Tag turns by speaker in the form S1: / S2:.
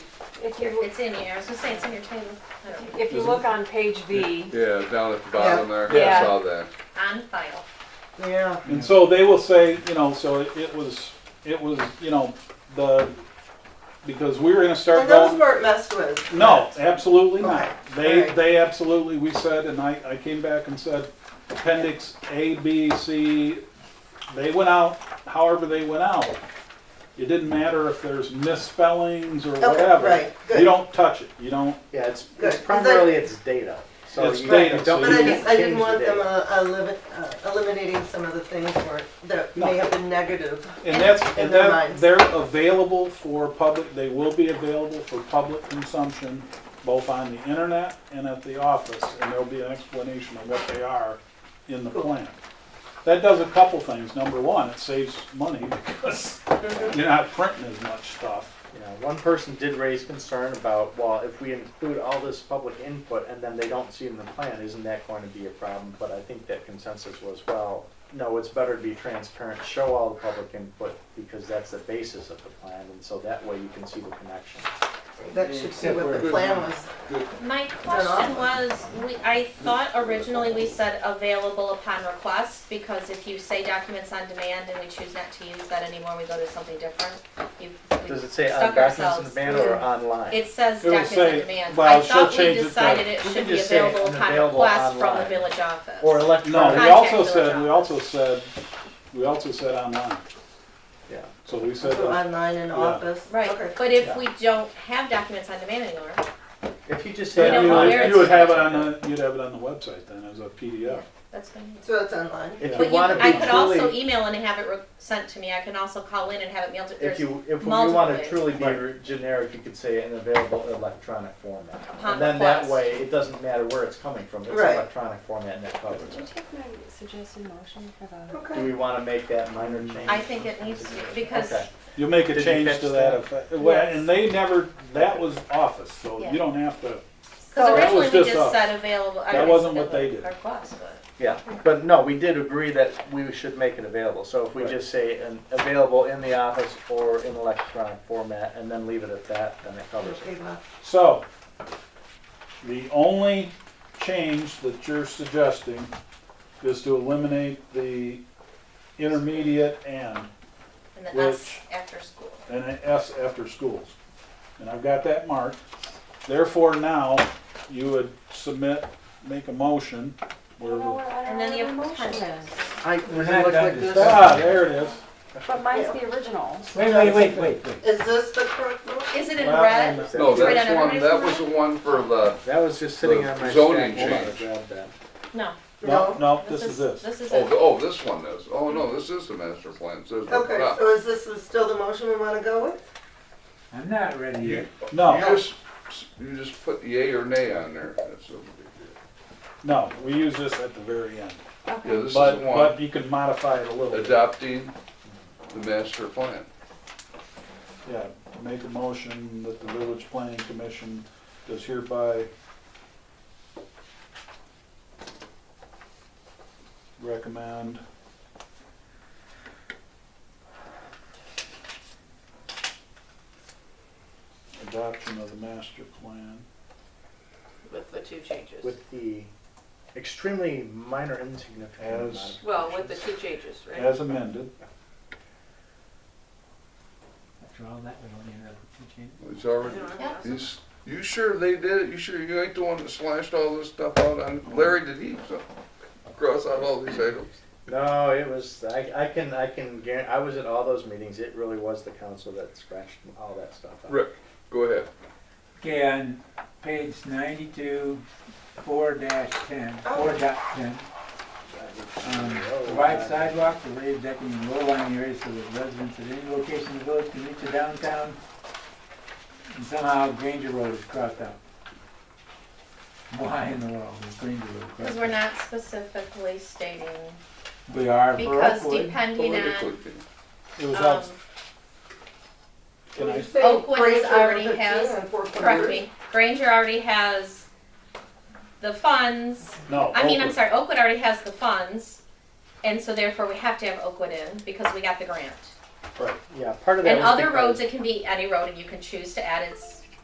S1: If you,
S2: It's in here, I was gonna say it's in your table. I don't know.
S1: if you look on page V,
S3: Yeah, down at the bottom there,
S1: Yeah.
S3: I saw that.
S2: On file.
S4: Yeah.
S5: And so they will say, you know, so it- it was, it was, you know, the, because we were gonna start
S4: And those
S5: going.
S4: weren't messed with.
S5: No, absolutely not.
S4: Okay,
S5: They,
S4: alright.
S5: they absolutely, we said, and I, I came back and said, appendix A, B, C, they went out however they went out. It didn't matter if there's misspellings or
S4: Okay,
S5: whatever.
S4: right, good.
S5: You don't touch it, you don't,
S6: Yeah, it's,
S4: Good.
S6: it's primarily its data. So
S5: It's
S6: you
S5: data,
S6: you
S5: so
S6: don't
S4: But I
S5: you-
S4: just, I
S6: change
S4: didn't
S6: the
S4: want them
S6: data.
S4: uh, elimi- uh, eliminating some of the things where- that
S5: No.
S4: may have been negative.
S5: and that's,
S4: In
S5: and
S4: their
S5: that,
S4: minds.
S5: they're available for public, they will be available for public consumption, both on the internet and at the office, and there'll be an explanation of what they are in the plan. That does a couple things. Number one, it saves money because you're not printing as much stuff.
S6: Yeah,
S4: uh,
S6: one person did raise concern about, well, if we include all this public input and then they don't see it in the plan, isn't that going to be a problem? But I think that consensus was, well, no, it's better to be transparent, show all the public input because that's the basis of the plan. And so that way you can see the connection.
S4: That should be what the
S3: Good.
S4: plan was.
S2: My question was, we, I thought originally we said available upon request, because if you say documents on demand and we choose not to use that anymore, we go to something different. You- we
S6: Does it say on
S2: stuck
S6: documents in
S2: ourselves.
S6: the banner or online?
S2: It says
S5: It would
S2: documents on
S5: say-
S2: demand.
S5: well,
S2: I thought
S5: she'll
S2: we
S5: change it to-
S2: decided it
S6: we
S2: should
S6: can
S2: be
S6: just say
S2: available
S6: an
S2: upon
S6: available
S2: request from the
S6: online.
S2: village office.
S6: Or
S5: No, we
S6: electronic?
S5: also
S2: Contact
S5: said, we
S2: Georgia.
S5: also said, we also said online.
S6: Yeah.
S5: So we said,
S4: So
S5: uh,
S4: Online and
S5: Yeah.
S4: office. Okay.
S2: Right, but if
S6: Yeah.
S2: we don't have documents on demand anymore,
S6: If you just
S5: you
S2: We
S6: say
S2: don't know where
S5: would-
S2: it's-
S5: you would have it on the, you'd have it on the website then as a PDF.
S2: that's fine.
S4: So it's online.
S6: If
S2: But
S6: you
S2: you,
S6: want to
S2: I
S6: be
S2: could also
S6: truly,
S2: email and have it re- sent to me, I can also call in and have it mailed to,
S6: if
S2: there's
S6: you, if you
S2: multiple
S6: want
S2: ways.
S6: to truly be re- generic, you could say an available electronic format.
S2: Upon
S6: And then that
S2: request.
S6: way, it doesn't matter where it's coming from, it's
S4: Right.
S6: electronic format and it covers
S7: Did you
S6: it.
S7: take my suggested motion for the?
S6: Do
S4: Okay.
S6: we want to make that minor change?
S2: I think it needs to, because
S6: Okay.
S5: You'll make
S6: Did
S5: a
S6: you
S5: change
S6: catch
S5: to
S6: that?
S5: that effect. Well, and they never, that was office, so
S2: Yeah.
S5: you don't have to,
S2: Because
S5: So- That
S2: originally
S5: was
S2: we
S5: just
S2: just
S5: us.
S2: said available. I
S5: That
S2: mean,
S5: wasn't what they
S2: available
S5: did.
S2: Request, but
S6: Yeah, but no, we did agree that we should make it available, so if we
S5: Right.
S6: just say an available in the office or in electronic format and then leave it at that, then it covers it.
S4: Okay, well,
S5: So, the only change that you're suggesting is to eliminate the intermediate and,
S2: and then
S5: Which-
S2: us after school.
S5: and an S after schools. And I've got that marked. Therefore, now, you would submit, make a motion. where we-
S2: And then the appendix.
S6: I,
S8: does it look like this?
S5: Ah, there it is.
S7: But mine's the original.
S8: Wait, wait, wait, wait, wait.
S4: Is this the correct one?
S2: Is it in
S5: Well,
S2: red?
S3: No,
S2: Right
S3: that's
S2: on
S3: one,
S2: everybody's
S3: that was the
S2: line?
S3: one for the,
S6: That was just sitting
S3: The
S6: on my stack.
S3: zoning
S6: Hold on, I
S3: change.
S6: grabbed that.
S2: No.
S5: No, no, this is this.
S2: This is
S3: oh,
S2: it.
S3: the- oh, this one is. Oh, no, this is the master plan. It says at the
S4: Okay,
S3: top.
S4: so is this is still the motion we want to go with?
S8: I'm not ready yet.
S5: No.
S3: You just, you just put yea or nay on there. That's no big
S5: No, we use this at the very end.
S3: deal. Yeah, this is
S5: But,
S3: the one,
S5: but you can modify it a little bit.
S3: adopting the master plan.
S5: Yeah, make a motion that the village planning commission does hereby recommend adoption of the master plan.
S9: With the two changes.
S6: With the extremely minor insignificant.
S5: As-
S9: Well, with the two changes, right?
S5: As amended,
S8: After all that, we don't need another change.
S3: It's already,
S2: Yeah.
S3: he's, you sure they did it? You sure you ain't the one that slashed all this stuff out on, Larry, did he so- cross out all these items?
S6: No, it was, I, I can, I can guarantee, I was at all those meetings, it really was the council that scratched all that stuff out.
S3: Rick, go ahead.
S8: Okay, on page ninety-two, four dash ten, four dot ten. Um,
S6: "Oh,
S8: Provide sidewalk to raise decking in low-lying areas so that residents at any location in the village can reach the downtown. And somehow Granger Road is crossed out. Why in the world is Granger Road crossed out?
S2: Because we're not specifically stating,
S8: We are for
S2: because
S8: Oakwood.
S2: depending on,
S3: Politically,
S5: it was
S2: um,
S5: on, can I,
S2: Oakwood
S4: Grades
S2: has
S4: are
S2: already
S4: 15
S2: has-
S4: and 4.1.
S2: correct me, Granger already has the funds.
S5: no.
S2: I mean, I'm
S5: Oakwood.
S2: sorry, Oakwood already has the funds, and so therefore we have to have Oakwood in, because we got the grant.
S6: Yeah, part of that
S2: And
S6: was
S2: other
S6: because-
S2: roads, it can be any road, and you can choose to add its